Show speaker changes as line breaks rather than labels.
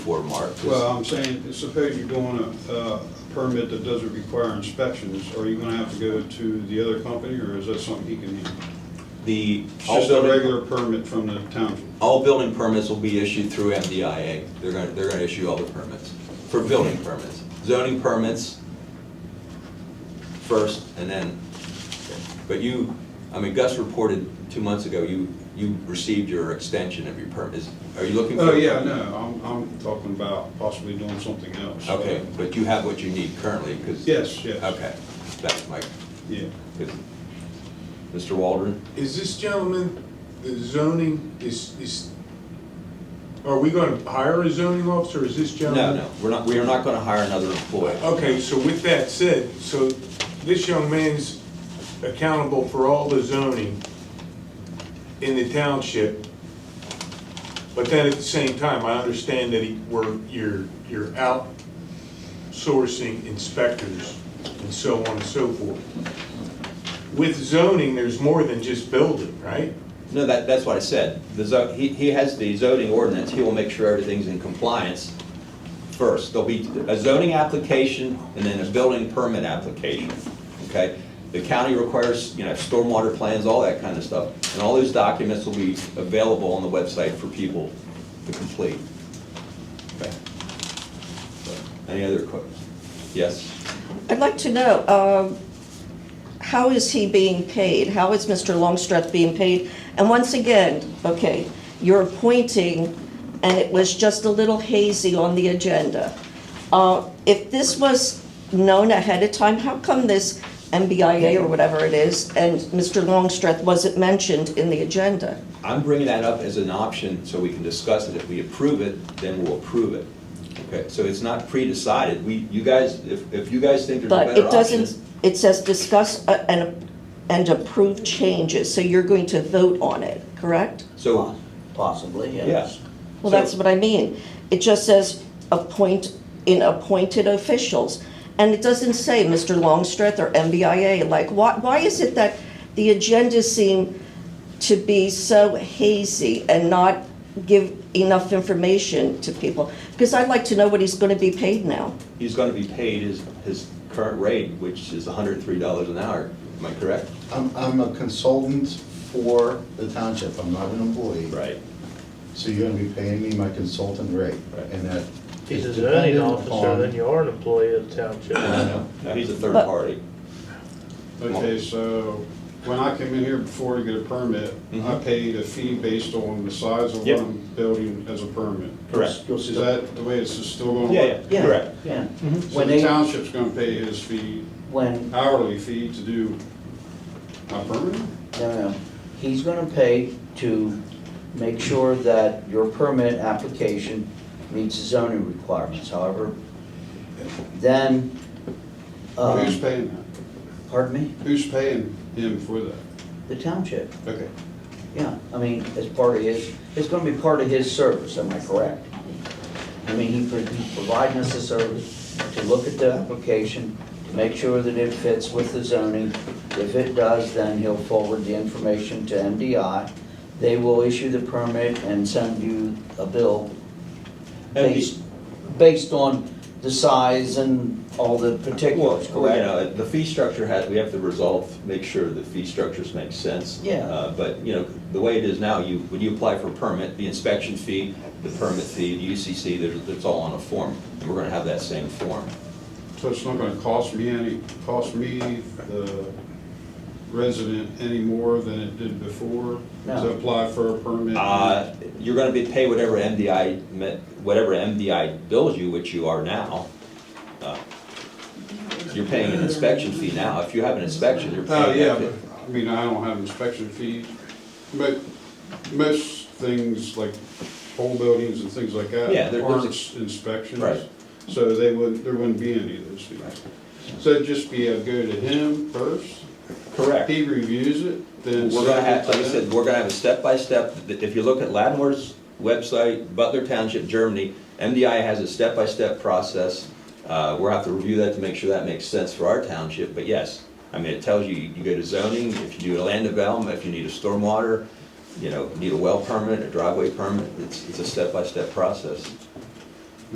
for Mark. 'cause-
Well, I'm saying, suppose you're doing a, a permit that doesn't require inspections, are you gonna have to go to the other company, or is that something he can handle?
The,
It's
all
Just a
building,
regular permit from the township?
all building permits will be issued through MDIA. They're gonna, they're gonna issue all the permits, for building permits. Zoning permits first, and then, but you, I mean, Gus reported two months ago, you, you received your extension of your permit. Is- Are you looking for?
Oh, yeah, no, I'm, I'm talking about possibly doing something else.
Okay, but you have what you need currently, because.
Yes, yes.
Okay, that's my,
Yeah.
Mr. Waldron?
Is this gentleman, the zoning, is, is, are we gonna hire a zoning officer, is this
No,
gentleman?
no, we're not, we are not gonna hire another employee.
Okay, so with that said, so this young man's accountable for all the zoning in the township, but then at the same time, I understand that he, we're, you're, you're outsourcing inspectors and so on and so forth. With zoning, there's more than just building, right?
No, that, that's what I said. The zo, he, he has the zoning ordinance, he will make sure everything's in compliance first. There'll be a zoning application and then a building permit application, okay? The county requires, you know, stormwater plans, all that kind of stuff. And all those documents will be available on the website for people to complete. Okay. Any other questions? Yes?
I'd like to know, um, how is he being paid? How is Mr. Longstreth being paid? And once again, okay, you're appointing, and it was just a little hazy on the agenda. Uh, If this was known ahead of time, how come this MBIA or whatever it is, and Mr. Longstreth wasn't mentioned in the agenda?
I'm bringing that up as an option so we can discuss it. If we approve it, then we'll approve it. Okay, so it's not pre-decided. We, you guys, if, if you guys think there's a
But it
better option.
doesn't, it says discuss uh, and and approve changes, so you're going to vote on it, correct?
So,
Possibly,
yes.
yes.
Well, that's what I mean. It just says appoint, in appointed officials. And it doesn't say Mr. Longstreth or MBIA. Like, why, why is it that the agendas seem to be so hazy and not give enough information to people? Because I'd like to know what he's going to be paid now.
He's gonna be paid his, his current rate, which is hundred and three dollars an hour. Am I correct?
I'm, I'm a consultant for the township, I'm not an employee. So you're gonna be paying me my consultant rate,
Right.
and that
If
is
He's a zoning
dependent
officer,
upon-
then you are an employee of the township.
No, no, he's a third
But-
party.
Okay, so when I came in here before to get a permit, I
Mhm.
paid a fee based on the size of
Yep.
what I'm building as a permit.
Correct.
You'll
Is
still-
that the way it's still going?
Yeah, yeah, correct.
Yeah.
Mm-hmm. So
When
the
they,
township's gonna pay his fee,
when,
hourly fee to do my permit?
no, no, he's gonna pay to make sure that your permit application meets the zoning requirements, however. Then, uh,
Who's paying that?
pardon me,
Who's paying him for that?
the township,
Okay.
yeah, I mean, as part of his, it's gonna be part of his service, am I correct? I mean, he pro- he's providing us a service to look at the application, to make sure that it fits with the zoning. If it does, then he'll forward the information to MDI. They will issue the permit and send you a bill
And
based, based on the size and all the
Well,
particulars,
you
correct?
know, the fee structure has, we have to resolve, make sure the fee structures make sense.
Yeah.
Uh, But, you know, the way it is now, you, when you apply for a permit, the inspection fee, the permit fee, the UCC, there's, it's all on a form. And we're gonna have that same form.
So it's not gonna cost me any, cost me, the resident, any more than it did before
No.
to apply for a permit?
Uh, You're gonna be, pay whatever MDI, me- whatever MDI bills you, which you are now. Uh, You're paying an inspection fee now. If you have an inspection, you're
Oh,
paying
yeah,
that
but,
fee.
I mean, I don't have inspection fees, but most things like whole buildings and things like that
Yeah, there-
aren't
there's
inspections.
Right.
So they would, there wouldn't be any of those fees. So it'd just be a go to him first,
Correct.
he reviews it, then.
We're gonna have, like I
send it to
said,
them.
we're gonna have a step-by-step, if you look at Latimore's website, Butler Township, Germany, MDI has a step-by-step process. Uh, we'll have to review that to make sure that makes sense for our township, but yes, I mean, it tells you, you go to zoning, if you do a land development, if you need a stormwater, you know, need a well permit, a driveway permit, it's, it's a step-by-step process.